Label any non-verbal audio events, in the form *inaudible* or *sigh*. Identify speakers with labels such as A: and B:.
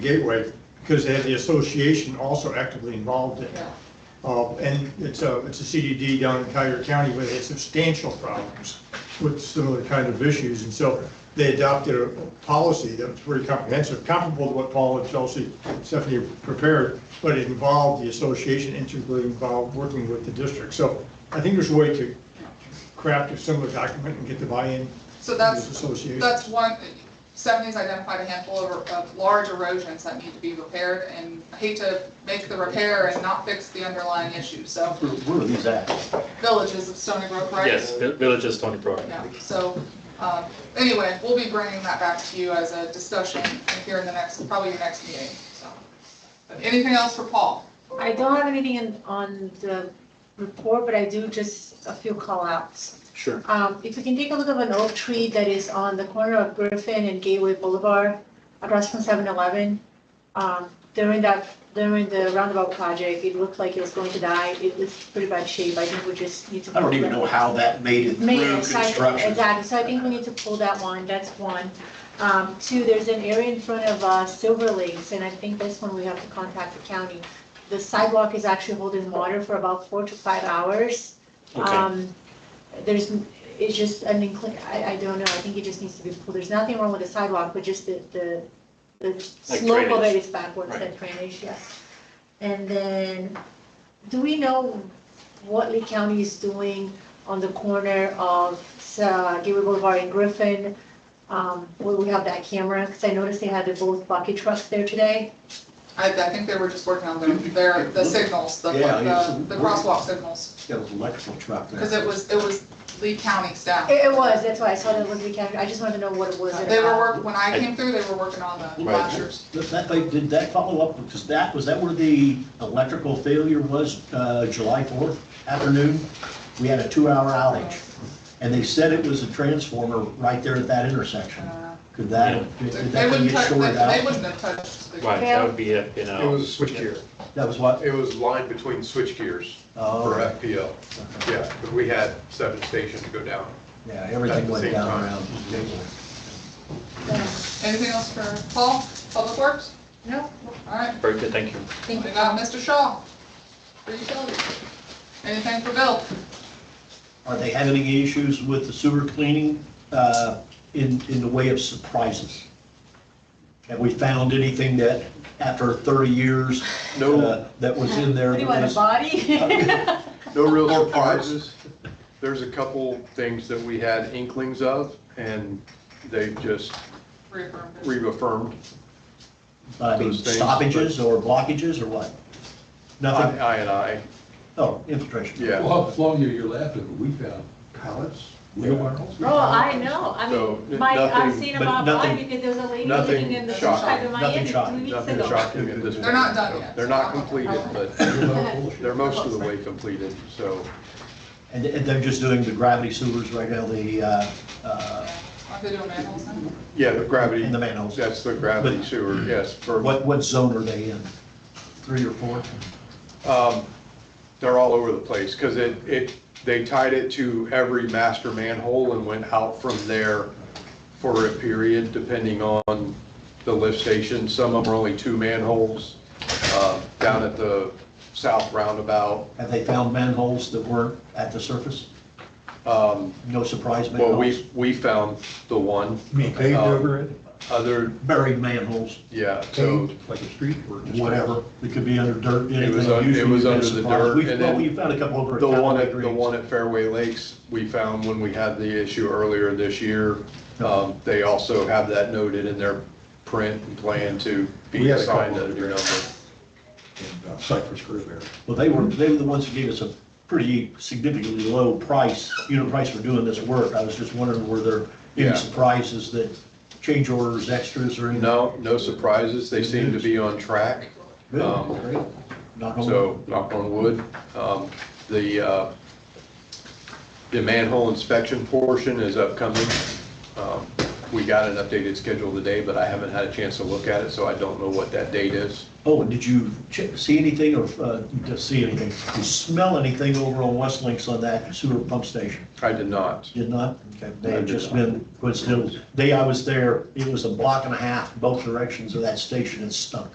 A: Gateway, because they had the association also actively involved in it.
B: Yeah.
A: Uh, And it's a, it's a CDD down in Cuyahoga County where they had substantial problems with similar kind of issues. And so they adopted a policy that was pretty comprehensive, comparable to what Paul and Chelsea, Stephanie prepared, but it involved the association integrally involved working with the district. So I think there's a way to craft a similar document and get the buy-in
B: So
A: from
B: that's-
A: this association.
B: That's one, Stephanie's identified a handful of, of large erosions that need to be repaired, and I hate to make the repair and not fix the underlying issue, so
C: Where- Where are these at?
B: villages of Stony Brook, right?
D: Yes, Vi- Village is Stony Brook.
B: Yeah, so, um, anyway, we'll be bringing that back to you as a discussion here in the next, probably your next meeting, so. But Anything else for Paul?
E: I don't have anything in, on the report, but I do just a few callouts.
C: Sure.
E: Um, if you can take a look at an oak tree that is on the corner of Griffin and Gateway Boulevard, across from 7-Eleven. Um, during that, during the roundabout project, it looked like it was going to die. It was pretty bad shape. I think we just need to.
C: I don't even know how that made it
E: Made
C: through
E: it, so I-
C: construction.
E: Exactly, so I think we need to pull that one, that's one. Um, two, there's an area in front of, uh, Silver Lakes, and I think this one we have to contact the county. The sidewalk is actually holding water for about four to five hours.
C: Okay.
E: Um, there's, it's just, an inclin I, I don't know, I think it just needs to be pulled, there's nothing wrong with the sidewalk, but just the, the, the slope of it
D: drainage.
E: is backwards, that drainage, yes. And then, do we know what Lee County is doing on the corner of uh, Gateway Boulevard and Griffin? Um, where we have that camera, because I noticed they had the both bucket trucks there today.
B: I, I think they were just working on their, their, the signals, the,
C: Yeah, yes.
B: the the crosswalk signals,
C: That was an electrical truck there.
B: because it was, it was Lee County staff.
E: It, it was, that's why I saw that was the camera, I just wanted to know what it was.
B: They were
E: about.
B: work, when I came through, they were working on the
C: Right.
B: flashers.
C: That- That, they, did that follow up, because that, was that where the electrical failure was, uh, July fourth afternoon? We had a two-hour outage, and they said it was a transformer right there at that intersection.
B: Uh,
C: Could that, did
B: They
C: that thing
B: wouldn't
C: get
B: touch, they
C: shorted
B: they
C: out?
B: wouldn't have touched. the-
D: Right, that would be, a, you
C: Oh.
F: It
D: know,
F: was a switchgear.
C: That was what?
F: It was line between switchgears for
C: Oh,
F: FPL.
C: okay.
F: Yeah, but we had seven stations go down.
C: yeah, everything
F: At the
C: went
F: same
C: down
F: time.
C: around.
E: Yeah.
B: Anything else for Paul, Public Works? No. All right,
D: very good, thank you.
B: we
E: Thank you.
B: got Mr. Shaw for utilities. Anything for Bill?
C: Are they having any issues with the sewer cleaning uh, in, in the way of surprises? Have we found anything that, after 30 years?
F: No.
C: uh, That was in there?
E: What do you want, a
C: that
B: *laughs*
E: body?
F: No real
C: Or parts.
F: surprises. There's a couple things that we had inklings of, and they just
B: Reaffirmed.
F: reaffirmed.
C: was, I mean,
F: those things,
C: stoppages or blockages or what?
F: I
C: Nothing?
F: I and I,
C: Oh, infiltration.
F: yeah.
G: Well, how long are you laughing? We found
F: Pallets?
G: wheelbarrows.
E: Oh, I know, I
F: So,
E: mean, Mike, I've
F: nothing-
E: seen
C: but
E: about mine
C: nothing-
E: because there was a lady
F: nothing
E: living in the
F: shocking,
E: side of
C: nothing
E: Miami two
C: shocking,
E: weeks ago.
F: Nothing shocking at this point.
B: They're not done yet.
F: They're not completed,
E: *laughs*
F: but they're most of the way completed, so.
C: And and they're just doing the gravity sewers right now, the, uh, uh,
B: Yeah. Aren't they doing manholes now?
F: Yeah, the gravity.
C: And the manholes.
F: That's the gravity
C: But- *clears throat*
F: sewer, yes. for-
C: what, what zone are they in? Three or four?
F: Um, They're all over the place, because it, it, they tied it to every master manhole and went out from there for a period, depending on the lift station. Some of them are only two manholes, uh, down at the south roundabout.
C: Have they found manholes that weren't at the surface?
F: Um,
C: No surprise manholes?
F: Well, we, we found the one,
G: Me paved
F: over
G: it,
F: other,
C: buried manholes,
F: yeah, so,
G: like a street or
C: whatever, it could be under dirt, anything.
F: was un- it
C: Usually
F: was
C: you'd
F: under
C: be
F: the
C: surprised.
F: dirt,
C: We-
F: and
C: Well,
F: then
C: we found a couple over. at
F: the one
C: Callaway
F: at, the
C: Greens.
F: one at Fairway Lakes, we found when we had the issue earlier this year. Um, They also have that noted in their print and plan to
G: We
F: be
G: had a
F: assigned
G: couple
F: a
G: of
F: new
G: them.
F: number.
G: and uh, Cypress Grove area.
C: Well, they were, they were the ones who gave us a pretty significantly low price, unit price for doing this work. I was just wondering, were there
F: Yeah.
C: any surprises that change orders, extras, or anything?
F: No, no surprises, they seem to be on track,
C: Good,
F: um,
C: great. Knock
G: Oh.
C: on wood.
F: so knock on wood. Um, The, uh, the manhole inspection portion is upcoming. Um, we got an updated schedule today, but I haven't had a chance to look at it, so I don't know what that date is.
C: Oh, and did you check, see anything or, uh, did see anything? Did you smell anything over on West Links on that sewer pump station?
F: I did not.
C: Did not? Okay, They
F: I
C: had
F: did
C: just
F: not.
C: been coincidental. Day I was there, it was a block and a half, both directions of that station and stunk.